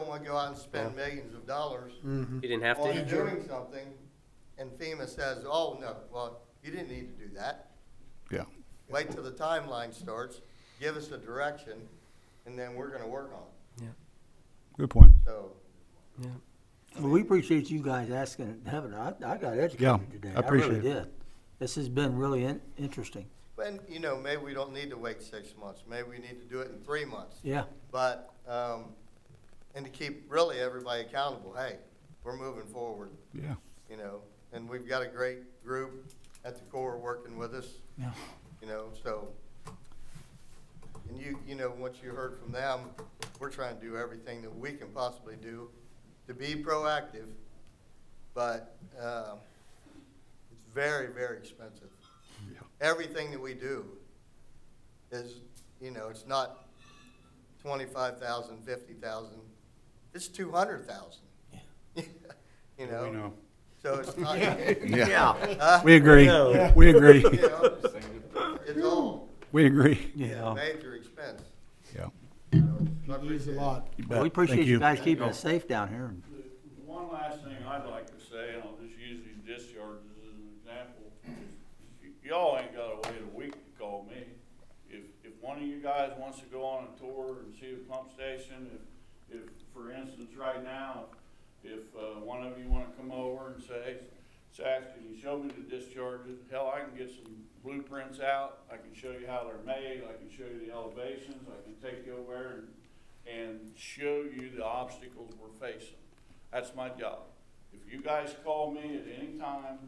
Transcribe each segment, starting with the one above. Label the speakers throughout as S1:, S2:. S1: wanna go out and spend millions of dollars
S2: Mm-hmm.
S3: You didn't Oh. have
S1: on
S3: to?
S1: doing something, and FEMA says, oh, no, well, you didn't need to do that.
S2: Yeah.
S1: Wait till the timeline starts, give us a direction, and then we're gonna work on it,
S2: Good point.
S1: so.
S4: Well, we appreciate you guys asking, having, I, I got
S2: Yeah,
S4: educated today.
S2: I appreciate
S4: really
S2: it.
S4: did. This has been really in, interesting.
S1: And, you know, maybe we don't need to wait six months, maybe we need to do it in three months.
S4: Yeah,
S1: But, um, and to keep really everybody accountable, hey, we're moving forward,
S2: Yeah.
S1: you know, and we've got a great group at the Corps working with us,
S4: yeah.
S1: you know, so. And you, you know, once you heard from them, we're trying to do everything that we can possibly do to be proactive, but, um, it's very, very expensive.
S2: Yeah.
S1: Everything that we do is, you know, it's not twenty-five thousand, fifty thousand, it's two hundred thousand. You know? So it's not.
S4: Yeah.
S1: Huh?
S2: We agree. We agree.
S1: You know, It's all,
S2: We agree.
S1: yeah,
S4: Yeah.
S1: major expense.
S2: Yeah.
S1: It's a lot.
S2: You bet.
S4: We appreciate
S2: Thank
S4: you guys keeping us safe down here.
S5: The One last thing I'd like to say, and I'll just use these discharges as an example. Y- Y'all ain't gotta wait a week to call me. If, if one of you guys wants to go on a tour and see a pump station, if, if, for instance, right now, if, uh, one of you wanna come over and say, Zach, can you show me the discharges? Hell, I can get some blueprints out, I can show you how they're made, I can show you the elevations, I can take you over and, and show you the obstacles we're facing. That's my job. If you guys call me at any time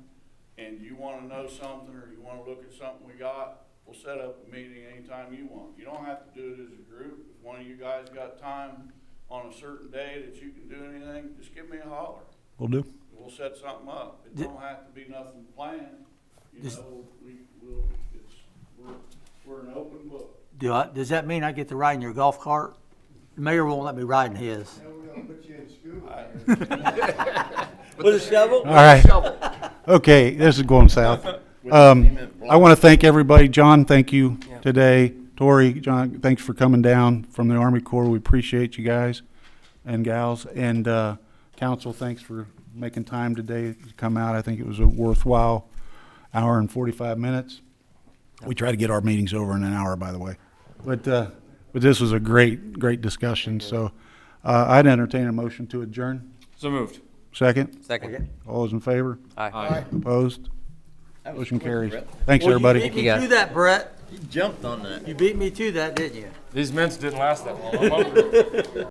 S5: and you wanna know something or you wanna look at something we got, we'll set up a meeting anytime you want. You don't have to do it as a group. If one of you guys got time on a certain day that you can do anything, just give me a holler.
S2: We'll do.
S5: We'll set something up. It
S4: Di-
S5: don't have to be nothing planned. You
S4: Dis-
S5: know, we will, it's, we're, we're an open book.
S4: Do I, does that mean I get to ride in your golf cart? The mayor won't let me ride in his.
S1: we're gonna put you in school.
S5: I-
S4: With a shovel?
S2: All right. Okay, this is going south. Um, I want to thank everybody. John, thank you today. Tori, John, thanks for coming down from the Army Corps. We appreciate you guys and gals. And, uh, council, thanks for making time today to come out. I think it was a worthwhile hour and forty-five minutes. We try to get our meetings over in an hour, by the way. But, uh, but this was a great, great discussion. So, uh, I'd entertain a motion to adjourn.
S6: So moved.
S2: Second?
S3: Second.
S2: All those in favor?
S6: Aye.
S2: Opposed? Motion carries. Thanks, everybody.
S4: You beat me to that, Brett.
S7: Jumped on that.
S4: You beat me to that, didn't you?
S6: These mints didn't last that long. I'm hungry.